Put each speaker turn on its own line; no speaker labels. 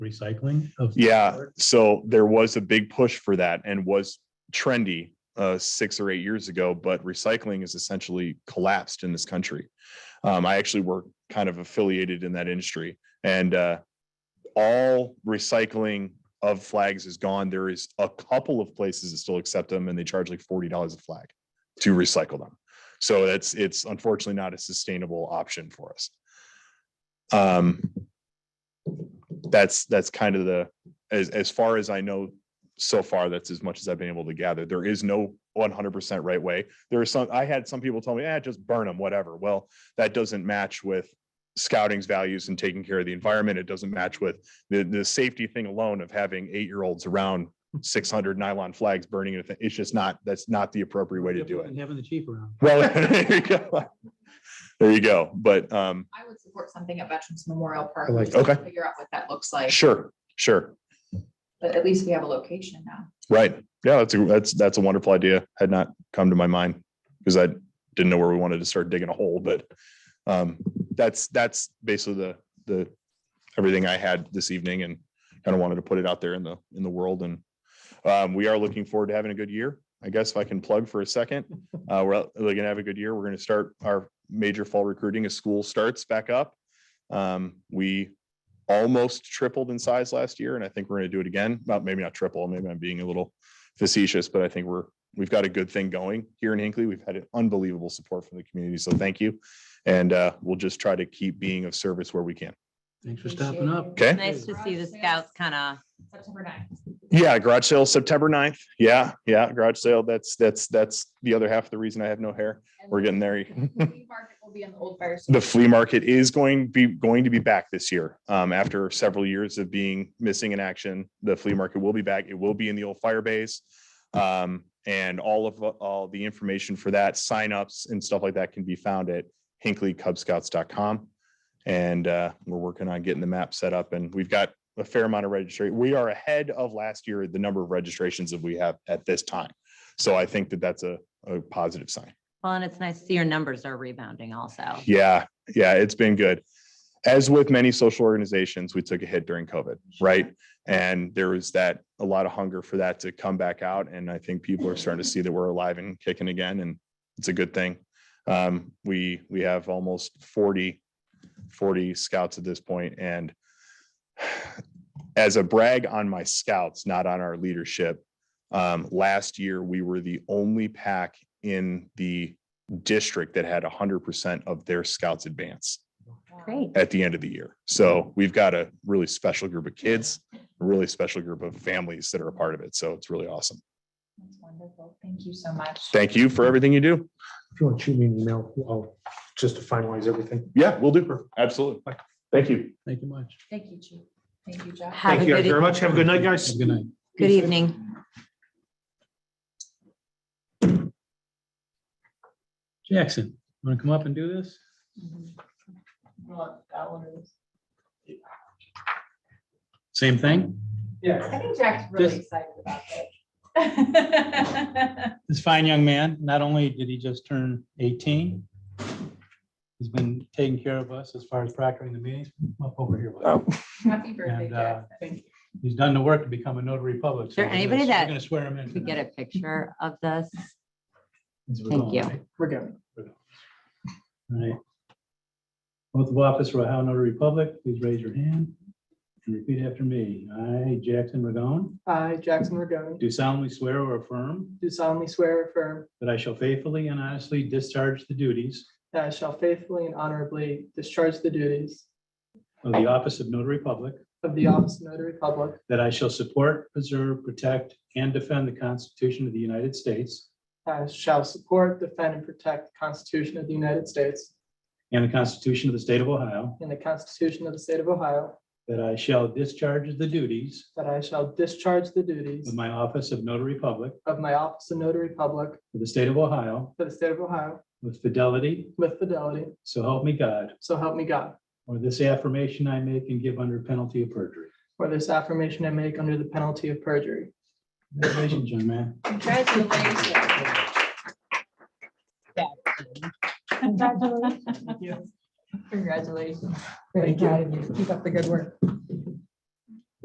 recycling of. some
Yeah,
sort?
so there was a big push for that and was trendy uh, six or eight years ago, but recycling is essentially collapsed in this country. Um, I actually work kind of affiliated in that industry and uh, all recycling of flags is gone. There is a couple of places that still accept them and they charge like forty dollars a flag to recycle them. So that's, it's unfortunately not a sustainable option for us. Um, that's, that's kind of the, as, as far as I know, so far, that's as much as I've been able to gather. There is no one hundred percent right way. There are some, I had some people tell me, ah, just burn them, whatever. Well, that doesn't match with scouting's values and taking care of the environment. It doesn't match with the, the safety thing alone of having eight-year-olds around six hundred nylon flags burning it. It's just not, that's not the appropriate way to do it.
And having the chief around.
Well, there you go. There you go. But, um,
I would support something at Veterans Memorial Park.
I like
just to
Okay.
Figure out what that looks like,
sure, sure.
but at least we have a location now.
Right. Yeah, that's a, that's, that's a wonderful idea. Had not come to my mind because I didn't know where we wanted to start digging a hole, but um, that's, that's basically the, the, everything I had this evening and kind of wanted to put it out there in the, in the world and um, we are looking forward to having a good year. I guess if I can plug for a second, uh, we're out- we're gonna have a good year. We're gonna start our major fall recruiting as school starts back up. Um, we almost tripled in size last year, and I think we're gonna do it again. Not maybe not triple, maybe I'm being a little facetious, but I think we're, we've got a good thing going here in Hinckley. We've had an unbelievable support from the community, so thank you. And uh, we'll just try to keep being of service where we can.
Thanks for stopping up.
Okay.
Nice to see the scouts kind of,
September 9th.
Yeah, garage sale September 9th. Yeah, yeah, garage sale. That's, that's, that's the other half of the reason I have no hair.
And
We're getting there.
the flea market Will be in the old fire.
The
station.
flea market is going be going to be back this year. Um, after several years of being missing in action, the flea market will be back. It will be in the old fire base. Um, and all of all the information for that, signups and stuff like that can be found at hinkleycubscouts.com. And uh, we're working on getting the map set up and we've got a fair amount of registration. We are ahead of last year, the number of registrations that we have at this time. So I think that that's a, a positive sign.
well, and it's nice to see your numbers are rebounding also.
Yeah, yeah, it's been good. As with many social organizations, we took a hit during COVID, right? And there was that, a lot of hunger for that to come back out. And I think people are starting to see that we're alive and kicking again, and it's a good thing. Um, we, we have almost 40, 40 scouts at this point, and as a brag on my scouts, not on our leadership, um, last year, we were the only pack in the district that had hundred percent of their scouts advance
Great.
at the end of the year. So we've got a really special group of kids, a really special group of families that are a part of it. So it's really awesome.
That's wonderful. Thank you so much.
Thank you for everything you do.
If you want to shoot me an email, I'll, just to finalize everything.
Yeah, we'll do. Absolutely. Thank you.
Thank you much.
Thank you, Chief. Thank you, Jeff.
Have a
Thank you guys
good e-
very much. Have a good night, guys.
Have a good night.
Good evening.
Jackson, want to come up and do this?
Mhm. You want that one or this?
Same thing?
I think Jack's really
Just-
excited about that.
This fine young man, not only did he just turn 18, he's been taking care of us as far as proctoring the meetings. Come Up over here. bud.
Oh.
Happy birthday,
And, uh,
Jack. Thank you.
He's done the work to become a notary public.
Is there anybody that
Going to swear him in.
Could we get
tonight.
a picture of this?
As we're
Thank
going,
you.
right? All right. Oath of office for Ohio Notary Public, please raise your hand and repeat after me. I, Jackson Ragone,
I, Jackson Regoni,
do solemnly swear or affirm
do solemnly swear or affirm
that I shall faithfully and honestly discharge the duties
that I shall faithfully and honorably discharge the duties
of the office of notary public,
of the office of notary public,
that I shall support, preserve, protect, and defend the Constitution of the United States
I shall support, defend, and protect the Constitution of the United States
and the Constitution of the State of Ohio,
and the Constitution of the State of Ohio,
that I shall discharge the duties
that I shall discharge the
of
duties
my office of notary public
of my office of notary public
for the State of Ohio
for the State of Ohio
with fidelity,
with fidelity,
so help me God.
so help me God.
Or this affirmation I make and give under penalty of perjury.
For this affirmation I make under the penalty of perjury.
Congratulations, young man.
Congratulations. Congratulations. Congratulations. Very proud of you. Keep up the good work.